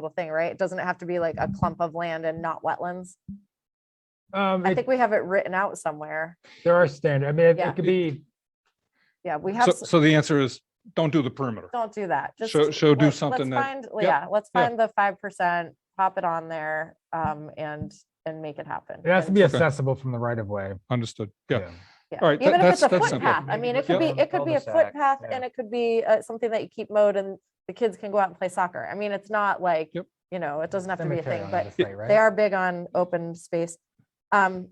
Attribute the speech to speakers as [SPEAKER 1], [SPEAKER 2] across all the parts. [SPEAKER 1] little thing, right? Doesn't it have to be like a clump of land and not wetlands?
[SPEAKER 2] Um,
[SPEAKER 1] I
[SPEAKER 2] it-
[SPEAKER 1] think we have it written out somewhere.
[SPEAKER 2] there are standard, I mean, it-
[SPEAKER 1] Yeah.
[SPEAKER 2] it could be,
[SPEAKER 1] Yeah, we have,
[SPEAKER 3] So,
[SPEAKER 1] s-
[SPEAKER 3] so the answer is, don't do the perimeter.
[SPEAKER 1] don't do that. Just
[SPEAKER 3] So- so do
[SPEAKER 1] let's-
[SPEAKER 3] something
[SPEAKER 1] let's
[SPEAKER 3] that-
[SPEAKER 1] find-
[SPEAKER 3] yeah,
[SPEAKER 1] Yeah, let's
[SPEAKER 3] yeah.
[SPEAKER 1] find the five percent, pop it on there, um, and, and make it happen.
[SPEAKER 2] it has to
[SPEAKER 1] And-
[SPEAKER 2] be
[SPEAKER 3] Okay.
[SPEAKER 2] accessible from the right of way.
[SPEAKER 3] Understood. Yeah.
[SPEAKER 1] Yeah.
[SPEAKER 3] All right, that-
[SPEAKER 1] Even if it's a
[SPEAKER 3] that's- that's simple.
[SPEAKER 1] footpath, I
[SPEAKER 2] Maybe
[SPEAKER 1] mean, it
[SPEAKER 2] with
[SPEAKER 1] could be,
[SPEAKER 2] your
[SPEAKER 1] it could be a
[SPEAKER 2] cul-de-sac,
[SPEAKER 1] footpath
[SPEAKER 2] yeah.
[SPEAKER 1] and it could be uh, something that you keep mowed and the kids can go out and play soccer. I mean, it's not like,
[SPEAKER 3] Yep.
[SPEAKER 1] you know, it doesn't have to be a
[SPEAKER 2] Cemetery
[SPEAKER 1] thing,
[SPEAKER 2] on
[SPEAKER 1] but
[SPEAKER 2] this way, right?
[SPEAKER 1] they are big on open space. Um,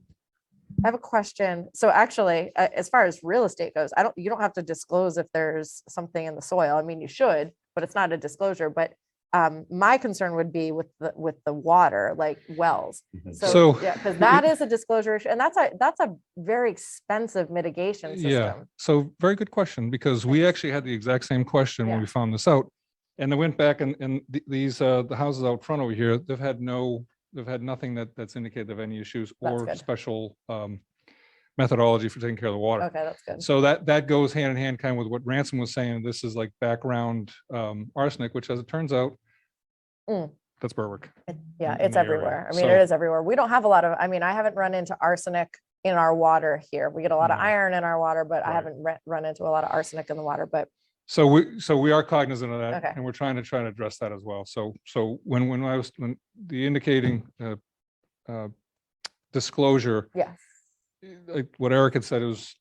[SPEAKER 1] I have a question. So actually, uh, as far as real estate goes, I don't, you don't have to disclose if there's something in the soil. I mean, you should, but it's not a disclosure, but um, my concern would be with the, with the water, like wells.
[SPEAKER 4] Mhm.
[SPEAKER 1] So,
[SPEAKER 3] So-
[SPEAKER 1] yeah, because that is a disclosure issue, and that's a, that's a very expensive mitigation
[SPEAKER 3] Yeah,
[SPEAKER 1] system.
[SPEAKER 3] so very good question, because we
[SPEAKER 1] Thanks.
[SPEAKER 3] actually had the exact same question when
[SPEAKER 1] Yeah.
[SPEAKER 3] we found this out. And I went back and, and th- these, uh, the houses out front over here, they've had no, they've had nothing that, that's indicated of any issues
[SPEAKER 1] That's
[SPEAKER 3] or
[SPEAKER 1] good.
[SPEAKER 3] special, um, methodology for taking care of the water.
[SPEAKER 1] Okay, that's good.
[SPEAKER 3] So that, that goes hand in hand kind of with what Ransom was saying. This is like background, um, arsenic, which as it turns out,
[SPEAKER 1] Mm.
[SPEAKER 3] that's Berwick.
[SPEAKER 1] Yeah,
[SPEAKER 3] in
[SPEAKER 1] it's
[SPEAKER 3] the area.
[SPEAKER 1] everywhere. I mean, it
[SPEAKER 3] So-
[SPEAKER 1] is everywhere. We don't have a lot of, I mean, I haven't run into arsenic in our water here. We get a lot of
[SPEAKER 3] No.
[SPEAKER 1] iron in our water, but I
[SPEAKER 3] Mm. Right.
[SPEAKER 1] haven't re- run into a lot of arsenic in the water, but
[SPEAKER 3] So we, so we are cognizant of
[SPEAKER 1] Okay.
[SPEAKER 3] that and we're trying to try to address that as well. So, so when, when I was, when the indicating, uh, uh, disclosure,
[SPEAKER 1] yes.
[SPEAKER 3] like what Eric had said is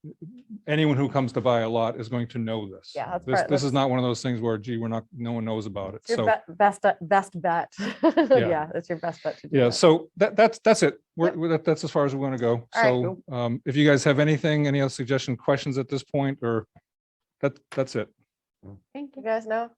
[SPEAKER 3] anyone who comes to buy a lot is going to know this.
[SPEAKER 1] Yeah, that's
[SPEAKER 3] This,
[SPEAKER 1] part-
[SPEAKER 3] this is
[SPEAKER 1] that's-
[SPEAKER 3] not one of those things where, gee, we're not, no one knows about it.
[SPEAKER 1] Your
[SPEAKER 3] So,
[SPEAKER 1] be- best, uh, best bet. Yeah, that's your best bet to do
[SPEAKER 3] yeah,
[SPEAKER 1] that.
[SPEAKER 3] so that, that's, that's it. We're,
[SPEAKER 1] Yep.
[SPEAKER 3] we're- that- that's as far as we're going to go.
[SPEAKER 1] All right,
[SPEAKER 3] So, um, if you guys have anything, any other suggestion, questions at this point, or that, that's it.
[SPEAKER 1] Thank you. guys know?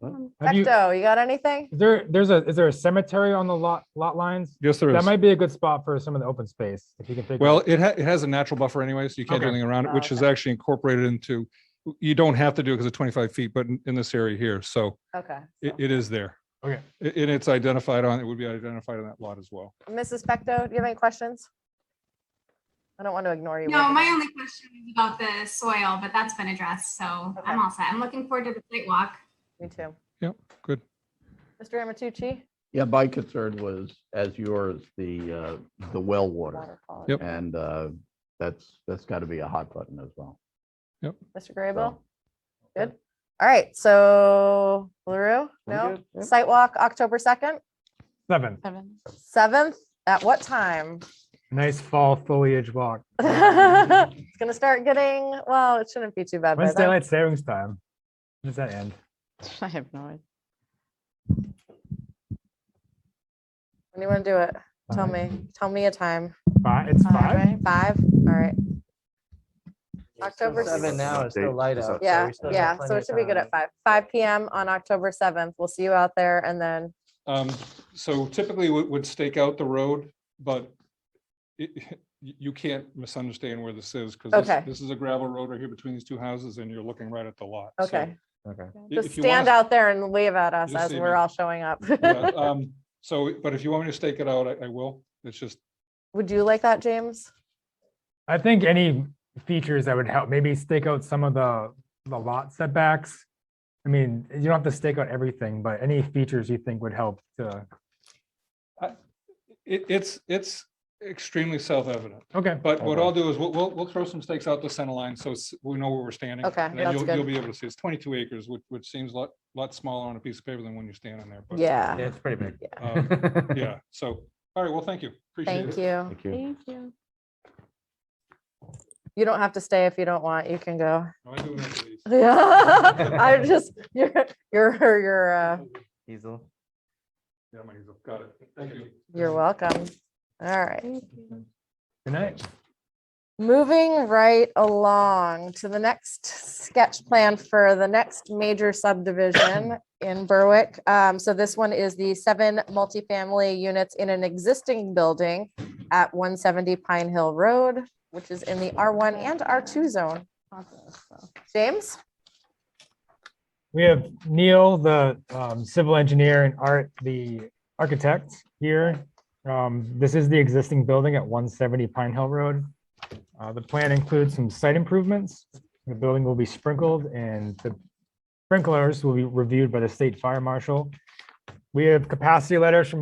[SPEAKER 2] Have you-
[SPEAKER 1] Ecto, you got anything?
[SPEAKER 2] Is There, there's a, is there a cemetery on the lot, lot lines?
[SPEAKER 3] Yes, there
[SPEAKER 2] That
[SPEAKER 3] is.
[SPEAKER 2] might be a good spot for some of the open space, if you can think.
[SPEAKER 3] Well,
[SPEAKER 2] of-
[SPEAKER 3] it ha- it has a natural buffer anyway, so you can't do
[SPEAKER 2] Okay.
[SPEAKER 3] anything around it,
[SPEAKER 1] Oh,
[SPEAKER 3] which is
[SPEAKER 1] okay.
[SPEAKER 3] actually incorporated into, you don't have to do it because of twenty-five feet, but in, in this area here, so
[SPEAKER 1] Okay.
[SPEAKER 3] it,
[SPEAKER 1] so-
[SPEAKER 3] it is there.
[SPEAKER 2] Okay.
[SPEAKER 3] I- And it's identified on, it would be identified on that lot as well.
[SPEAKER 1] Mrs. Pecto, do you have any questions? I don't want to ignore you.
[SPEAKER 5] No,
[SPEAKER 1] Wendy.
[SPEAKER 5] my only question is about the soil, but that's been addressed, so
[SPEAKER 1] Okay.
[SPEAKER 5] I'm all set. I'm looking forward to the site walk.
[SPEAKER 1] Me too.
[SPEAKER 3] Yep, good.
[SPEAKER 1] Mr. Amatucci?
[SPEAKER 4] Yeah, my concern was, as yours, the, uh, the well water.
[SPEAKER 1] Water quality.
[SPEAKER 3] Yep.
[SPEAKER 4] And uh, that's, that's got to be a hot button as well.
[SPEAKER 1] Mr. Graybill? Good. All right, so LaRue,
[SPEAKER 4] I'm
[SPEAKER 1] no?
[SPEAKER 4] good, yep.
[SPEAKER 1] Sidewalk, October 2nd,
[SPEAKER 2] Seven,
[SPEAKER 1] 7th, at what time?
[SPEAKER 2] nice fall foliage walk.
[SPEAKER 1] It's gonna start getting, well, it shouldn't be too bad by
[SPEAKER 2] When's
[SPEAKER 1] then.
[SPEAKER 2] daylight savings time? When Does that end?
[SPEAKER 6] I have no idea.
[SPEAKER 1] When you wanna do it? Tell
[SPEAKER 2] Five?
[SPEAKER 1] me, tell me a time.
[SPEAKER 2] Five, it's five?
[SPEAKER 1] right? Five, all right. October
[SPEAKER 7] Seven
[SPEAKER 1] seventh.
[SPEAKER 7] now, it's still light out. so
[SPEAKER 1] Yeah,
[SPEAKER 7] we still have
[SPEAKER 1] yeah, so
[SPEAKER 7] plenty
[SPEAKER 1] it
[SPEAKER 7] of
[SPEAKER 1] should be good
[SPEAKER 7] time.
[SPEAKER 1] at five, five PM on October 7th. We'll see you out there and then,
[SPEAKER 3] Um, so typically we would stake out the road, but it, you, you can't misunderstand where this is because
[SPEAKER 1] Okay.
[SPEAKER 3] this, this is a gravel road right here between these two houses and you're looking right at the lot. So
[SPEAKER 1] okay.
[SPEAKER 2] Okay.
[SPEAKER 3] i-
[SPEAKER 1] Just
[SPEAKER 3] if you wanna
[SPEAKER 1] stand out there and wave at us
[SPEAKER 3] You'll
[SPEAKER 1] as
[SPEAKER 3] see
[SPEAKER 1] we're
[SPEAKER 3] me.
[SPEAKER 1] all showing up.
[SPEAKER 3] Yeah, um, So, but if you want me to stake it out, I, I will. It's just,
[SPEAKER 1] Would you like that, James?
[SPEAKER 2] I think any features that would help, maybe stake out some of the, the lot setbacks. I mean, you don't have to stake out everything, but any features you think would help to,
[SPEAKER 3] it, it's, it's extremely self-evident.
[SPEAKER 2] okay.
[SPEAKER 3] But what
[SPEAKER 4] Okay.
[SPEAKER 3] I'll do is we'll, we'll, we'll throw some stakes out the center line so s- we know where we're standing.
[SPEAKER 1] Okay,
[SPEAKER 3] and then
[SPEAKER 1] that's
[SPEAKER 3] you'll-
[SPEAKER 1] good.
[SPEAKER 3] You'll be able to see. It's twenty-two acres, which, which seems a lot, lot smaller on a piece of paper than when you're standing there. but,
[SPEAKER 1] Yeah,
[SPEAKER 7] Yeah, it's pretty big.
[SPEAKER 3] um, Yeah, so, all right, well, thank you. Appreciate
[SPEAKER 1] thank
[SPEAKER 3] it.
[SPEAKER 1] you.
[SPEAKER 4] Thank you.
[SPEAKER 6] Thank you.
[SPEAKER 1] You don't have to stay if you don't want, you can go.
[SPEAKER 3] No, I do remember these.
[SPEAKER 1] Yeah, I just, you're, you're, you're, uh,
[SPEAKER 7] Easel.
[SPEAKER 3] Yeah, my- Got it. Thank you.
[SPEAKER 1] you're welcome. All right,
[SPEAKER 2] Good night.
[SPEAKER 1] moving right along to the next sketch plan for the next major subdivision in Berwick. Um, so this one is the seven multifamily units in an existing building at one seventy Pine Hill Road, which is in the R one and R two zone. James?
[SPEAKER 2] We have Neil, the um, civil engineer, and Art, the architect here. Um, This is the existing building at 170 Pine Hill Road. Uh, The plan includes some site improvements. The building will be sprinkled and the sprinklers will be reviewed by the state fire marshal. We have capacity letters from